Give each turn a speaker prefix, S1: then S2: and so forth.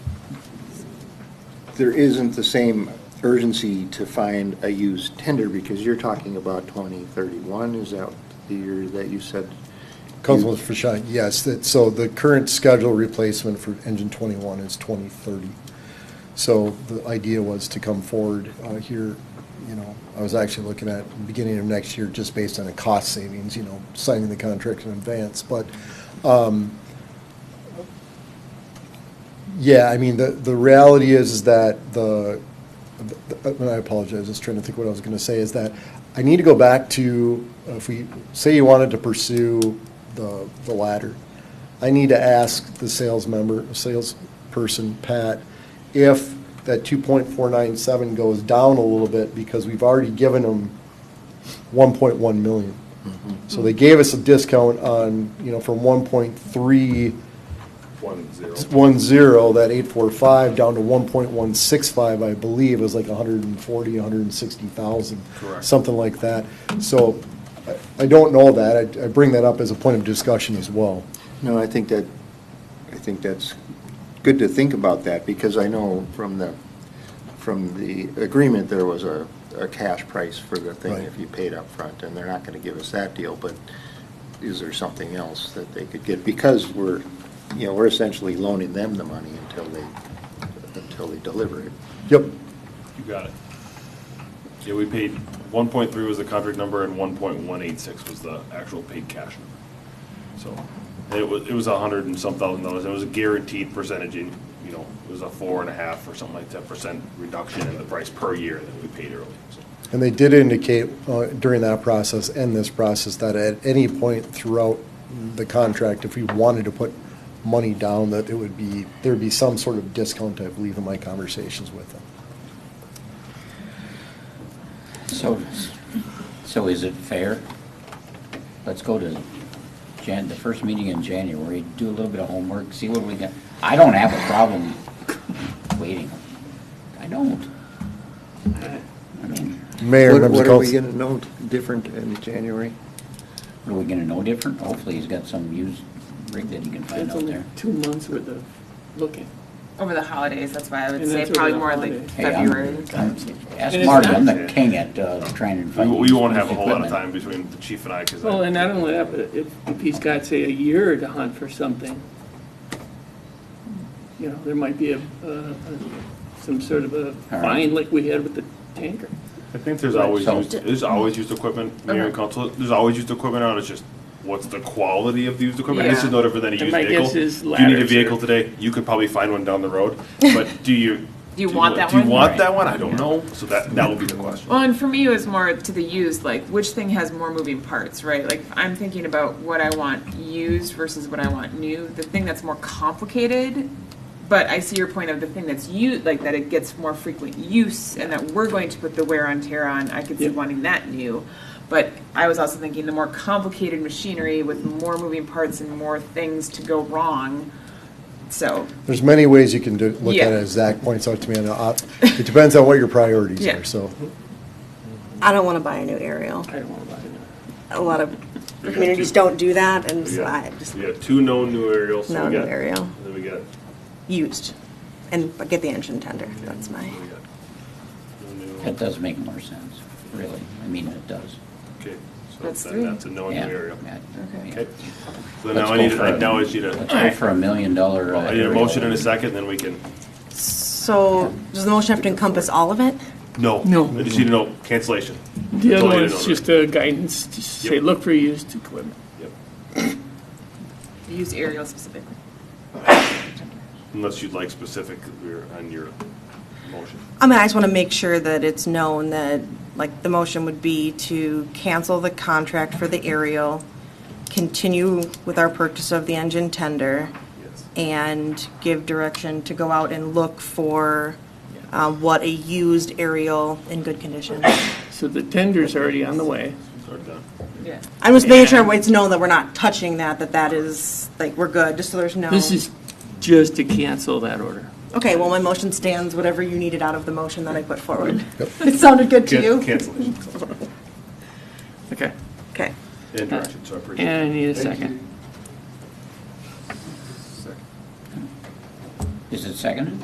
S1: there isn't the same urgency to find a used tender, because you're talking about 2031, is that the year that you said?
S2: Councilman Fisher, yes, that, so the current schedule replacement for engine twenty-one is twenty thirty. So the idea was to come forward uh, here, you know, I was actually looking at the beginning of next year, just based on the cost savings, you know, signing the contract in advance, but, um, yeah, I mean, the, the reality is is that the, the- and I apologize, I was trying to think what I was gonna say, is that I need to go back to, uh, if we, say you wanted to pursue the, the latter, I need to ask the sales member, salesperson, Pat, if that two point four nine seven goes down a little bit, because we've already given them one point one million. So they gave us a discount on, you know, from one point three
S3: One zero.
S2: one zero, that eight four five, down to one point one six five, I believe, is like a hundred and forty, a hundred and sixty thousand.
S3: Correct.
S2: Something like that. So I- I don't know that. I, I bring that up as a point of discussion as well.
S1: No, I think that, I think that's good to think about that, because I know from the, from the agreement, there was a, a cash price for the thing
S2: Right.
S1: if you paid up front, and they're not gonna give us that deal, but is there something else that they could get? Because we're, you know, we're essentially loaning them the money until they, until they deliver it.
S2: Yep,
S3: You got it. Yeah, we paid, one point three was the contract number and one point one eight six was the actual paid cash number. So, and it was, it was a hundred and some thousand dollars, and it was a guaranteed percentage in, you know, it was a four and a half or something like that percent reduction in the price per year that we paid early, so.
S2: And they did indicate uh, during that process and this process that at any point throughout the contract, if we wanted to put money down, that it would be, there'd be some sort of discount, I believe, in my conversations with them.
S4: So, so is it fair? Let's go to Jan, the first meeting in January, do a little bit of homework, see what we got. I don't have a problem waiting. I don't. I mean,
S2: Mayor,
S1: What-
S2: members of
S1: What are we
S2: council.
S1: gonna know different in January?
S4: are we gonna know different? Hopefully he's got some used rig that he can find
S5: That's
S4: out
S5: only
S4: there.
S5: two months worth of looking.
S6: Over the holidays, that's why I would
S5: And
S6: say
S5: that's
S6: probably
S5: over the
S6: more like
S5: holidays.
S4: Hey, I'm-
S6: February.
S4: I'm- Ask
S5: And it's
S4: Marty,
S5: not-
S4: I'm the king at, uh, trying to
S3: We,
S4: find.
S3: we
S4: used
S3: won't have a whole lot of
S4: equipment.
S3: time between the chief and I, cause
S5: Well, and
S3: I,
S5: not only that, but if, if he's got, say, a year to hunt for something, you know, there might be a, a- a- some sort of a
S4: All right.
S5: fine like we had with the tanker.
S3: I think there's always
S4: So-
S3: used, there's always used equipment, mayor and council, there's always used equipment out, it's just, what's the quality of the used equipment? This
S6: Yeah.
S3: is no different than a
S5: And
S3: used
S5: my
S3: vehicle.
S5: guess is
S3: Do you need a
S5: ladders
S3: vehicle
S5: are-
S3: today? You could probably find one down the road, but do you?
S6: Do you want that
S3: Do
S6: one?
S3: you want
S4: Right.
S3: that one? I don't know, so that, that will be the question.
S6: Well, and for me, it was more to the used, like which thing has more moving parts, right? Like I'm thinking about what I want used versus what I want new. The thing that's more complicated, but I see your point of the thing that's used, like that it gets more frequent use and that we're going to put the wear on tear on. I could see
S5: Yeah.
S6: wanting that new. But I was also thinking the more complicated machinery with more moving parts and more things to go wrong. So
S2: There's many ways you can do, look at
S6: Yeah.
S2: it, as Zach points out to me, and uh, it depends on what your priorities
S6: Yeah.
S2: are, so.
S7: I don't want to buy a new aerial.
S5: I don't want to buy it.
S7: A lot of communities don't do that, and
S3: We
S7: so I
S3: got,
S7: just
S3: we got two known new aerials, so
S7: no
S3: we
S7: new
S3: got,
S7: aerial,
S3: then we got,
S7: used, and but get the engine tender. That's my.
S3: we got no
S4: That
S3: new,
S4: does make more sense, really. I mean, it does.
S3: okay,
S6: That's
S3: so then
S6: three.
S3: that's a known new
S4: Yeah,
S3: aerial.
S4: yeah, yeah.
S3: Okay, so
S4: Let's
S3: now I
S4: go
S3: need,
S4: for
S3: I
S4: a-
S3: now I need
S4: Let's
S3: a,
S4: go for a million dollar. uh,
S3: I need a motion in
S4: aerial.
S3: a second, then we can,
S7: So does the motion have to encompass all of it?
S3: no.
S5: No.
S3: I just need to know cancellation.
S5: The
S3: That's
S5: other
S3: all I
S5: one
S3: need to
S5: is
S3: know.
S5: just a guidance to say,
S3: Yep.
S5: look for used equipment.
S3: Yep.
S6: used aerial specifically.
S3: Unless you'd like specific we're on your motion.
S7: I mean, I just want to make sure that it's known that like the motion would be to cancel the contract for the aerial, continue with our purchase of the engine tender,
S3: Yes.
S7: and give direction to go out and look for. Uh, what a used aerial in good condition.
S5: So the tender's already on the way.
S3: Or done.
S6: Yeah.
S7: I'm just making sure it's known that we're not touching that, that that is, like, we're good, just so there's no.
S5: This is just to cancel that order.
S7: Okay, well, my motion stands, whatever you needed out of the motion that I put forward. It sounded good to
S3: Can-
S7: you?
S3: Cancellation
S5: Okay.
S7: Okay.
S3: and direction, so I appreciate it.
S5: And I need a second.
S4: Is it seconded?